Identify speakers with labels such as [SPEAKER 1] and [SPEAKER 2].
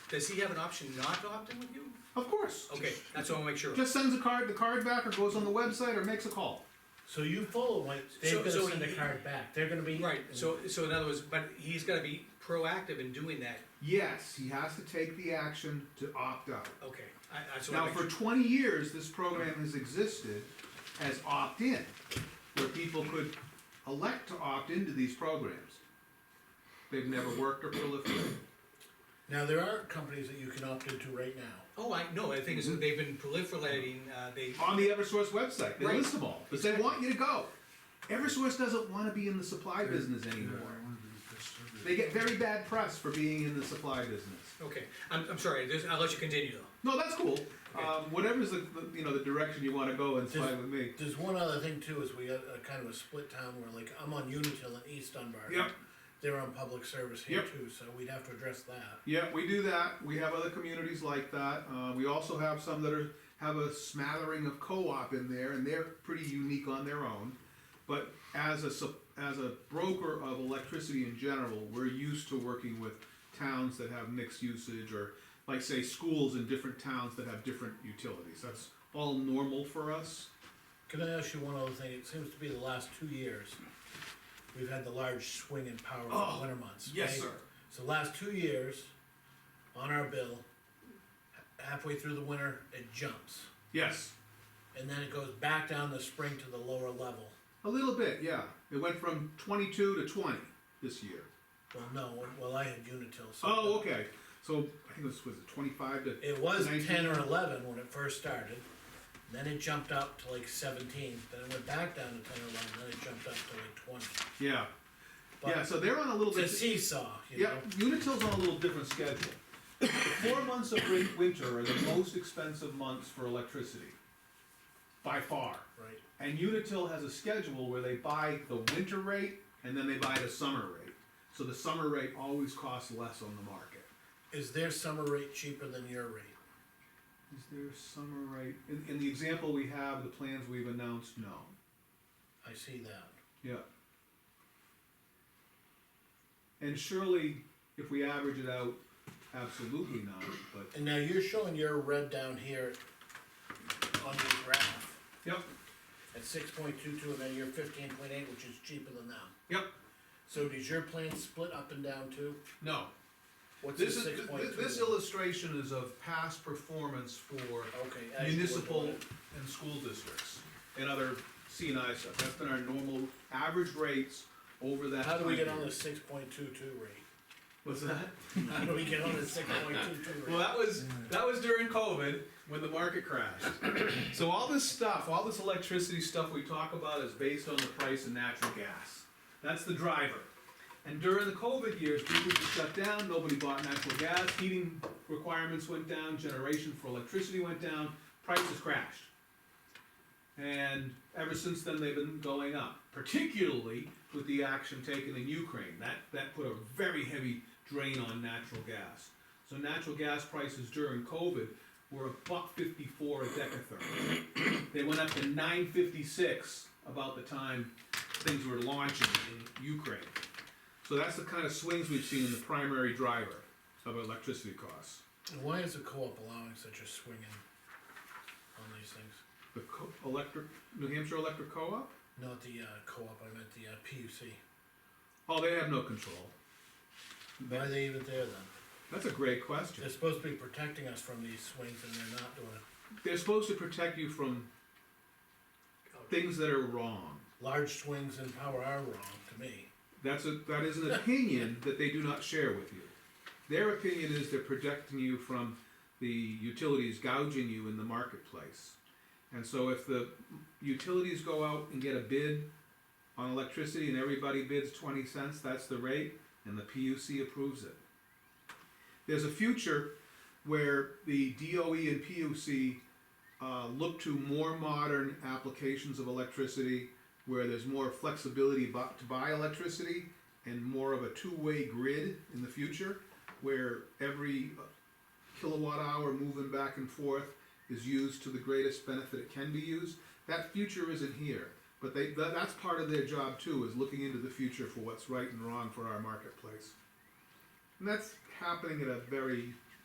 [SPEAKER 1] Does he have an option not to opt in with you?
[SPEAKER 2] Of course.
[SPEAKER 1] Okay, that's what I wanna make sure of.
[SPEAKER 2] Just sends a card, the card back, or goes on the website, or makes a call.
[SPEAKER 3] So you follow what,
[SPEAKER 1] So-
[SPEAKER 3] they're
[SPEAKER 1] so
[SPEAKER 3] gonna send a
[SPEAKER 1] you-
[SPEAKER 3] card back, they're gonna be.
[SPEAKER 1] Right, so, so in other words, but he's gotta be proactive in doing that,
[SPEAKER 2] Yes, he has to take the action to opt out.
[SPEAKER 1] okay, I, I, so I
[SPEAKER 2] Now,
[SPEAKER 1] make
[SPEAKER 2] for
[SPEAKER 1] sure.
[SPEAKER 2] twenty years, this program has existed as opt-in, where people could elect to opt into these programs. They've never worked or proliferated.
[SPEAKER 3] Now, there are companies that you can opt into right now.
[SPEAKER 1] Oh, I, no, the thing
[SPEAKER 2] Mm-hmm.
[SPEAKER 1] is, they've been proliferating, uh, they,
[SPEAKER 2] On the Eversource website, they
[SPEAKER 1] Right.
[SPEAKER 2] list them all, because they want you to go. Eversource doesn't wanna be in the supply business anymore. They get very bad press for being in the supply business.
[SPEAKER 1] okay, I'm, I'm sorry, there's- I'll let you continue though.
[SPEAKER 2] No, that's cool. Um, whatever's the, the- you know, the direction you wanna go, it's
[SPEAKER 3] Just-
[SPEAKER 2] fine with me.
[SPEAKER 3] There's one other thing too, is we got a kind of a split town where like, I'm on Unitil in East Dunbar.
[SPEAKER 2] Yep.
[SPEAKER 3] They're on public service here
[SPEAKER 2] Yep.
[SPEAKER 3] too, so we'd have to address that.
[SPEAKER 2] Yeah, we do that. We have other communities like that. Uh, we also have some that are, have a smattering of co-op in there, and they're pretty unique on their own. But as a, sup- as a broker of electricity in general, we're used to working with towns that have mixed usage, or like say schools in different towns that have different utilities. That's all normal for us.
[SPEAKER 3] Can I ask you one other thing? It seems to be the last two years, we've had the large swing in power in
[SPEAKER 2] Oh,
[SPEAKER 3] the winter months.
[SPEAKER 2] yes,
[SPEAKER 3] okay?
[SPEAKER 2] sir.
[SPEAKER 3] So last two years, on our bill, h- halfway through the winter, it jumps.
[SPEAKER 2] Yes.
[SPEAKER 3] And then it goes back down the spring to the lower level.
[SPEAKER 2] A little bit, yeah. It went from twenty-two to twenty this year.
[SPEAKER 3] Well, no, well, I had Unitil, so.
[SPEAKER 2] Oh, okay. So I think it was, was it twenty-five to?
[SPEAKER 3] It was
[SPEAKER 2] 19?
[SPEAKER 3] ten or eleven when it first started, then it jumped up to like seventeen, then it went back down to ten or eleven, then it jumped up to like twenty.
[SPEAKER 2] Yeah, yeah.
[SPEAKER 3] But
[SPEAKER 2] So they're on a little
[SPEAKER 3] it's a
[SPEAKER 2] bit.
[SPEAKER 3] seesaw, you
[SPEAKER 2] Yeah,
[SPEAKER 3] know?
[SPEAKER 2] Unitil's on a little different schedule. The Four months of win- winter are the most expensive months for electricity, by far.
[SPEAKER 3] Right,
[SPEAKER 2] And Unitil has a schedule where they buy the winter rate and then they buy the summer rate. So the summer rate always costs less on the market.
[SPEAKER 3] is their summer rate cheaper than your rate?
[SPEAKER 2] Is there summer rate? In, in the example we have, the plans we've announced, no.
[SPEAKER 3] I see that,
[SPEAKER 2] Yeah. And surely, if we average it out, absolutely not, but.
[SPEAKER 3] and now you're showing your red down here on your graph
[SPEAKER 2] Yep,
[SPEAKER 3] at six point two two, and then you're fifteen point eight, which is cheaper than them.
[SPEAKER 2] yep,
[SPEAKER 3] So does your plan split up and down too?
[SPEAKER 2] no.
[SPEAKER 3] What's the
[SPEAKER 2] This is,
[SPEAKER 3] six point two?
[SPEAKER 2] this illustration is of past performance for
[SPEAKER 3] Okay. actual
[SPEAKER 2] municipal
[SPEAKER 3] order.
[SPEAKER 2] and school districts and other CNI stuff. That's been our normal average rates over that.
[SPEAKER 3] How do we
[SPEAKER 2] time
[SPEAKER 3] get on
[SPEAKER 2] period.
[SPEAKER 3] the six point two two rate?
[SPEAKER 2] What's that?
[SPEAKER 3] How do we get on the six point two two
[SPEAKER 2] Well,
[SPEAKER 3] rate?
[SPEAKER 2] that was, that was during COVID, when the market crashed. So all this stuff, all this electricity stuff we talk about is based on the price of natural gas. That's the driver. And during the COVID years, people were shut down, nobody bought natural gas, heating requirements went down, generation for electricity went down, prices crashed. And ever since then, they've been going up, particularly with the action taken in Ukraine. That, that put a very heavy drain on natural gas. So natural gas prices during COVID were a buck fifty-four a decatherm. They went up to nine fifty-six about the time things were launching in Ukraine. So that's the kind of swings we've seen in the primary driver of electricity costs.
[SPEAKER 3] And Why is the co-op allowing such a swing in on these things?
[SPEAKER 2] The co- electric, New Hampshire Electric Co-op?
[SPEAKER 3] Not the, uh, co-op, I meant the, uh, PUC.
[SPEAKER 2] Oh, they have no control.
[SPEAKER 3] Why are they even there then?
[SPEAKER 2] That's a great question.
[SPEAKER 3] They're supposed to be protecting us from these swings and they're not doing it.
[SPEAKER 2] They're supposed to protect you from things that are wrong.
[SPEAKER 3] Large swings in power are wrong to me.
[SPEAKER 2] That's a, that is an opinion that they do not share with you. Their opinion is they're protecting you from the utilities gouging you in the marketplace. And so if the utilities go out and get a bid on electricity and everybody bids twenty cents, that's the rate, and the PUC approves it. There's a future where the DOE and PUC uh, look to more modern applications of electricity where there's more flexibility bu- to buy electricity and more of a two-way grid in the future where every kilowatt hour moving back and forth is used to the greatest benefit it can be used that future isn't here but they tha- that's part of their job too is looking into the future for what's right and wrong for our marketplace and that's happening at a very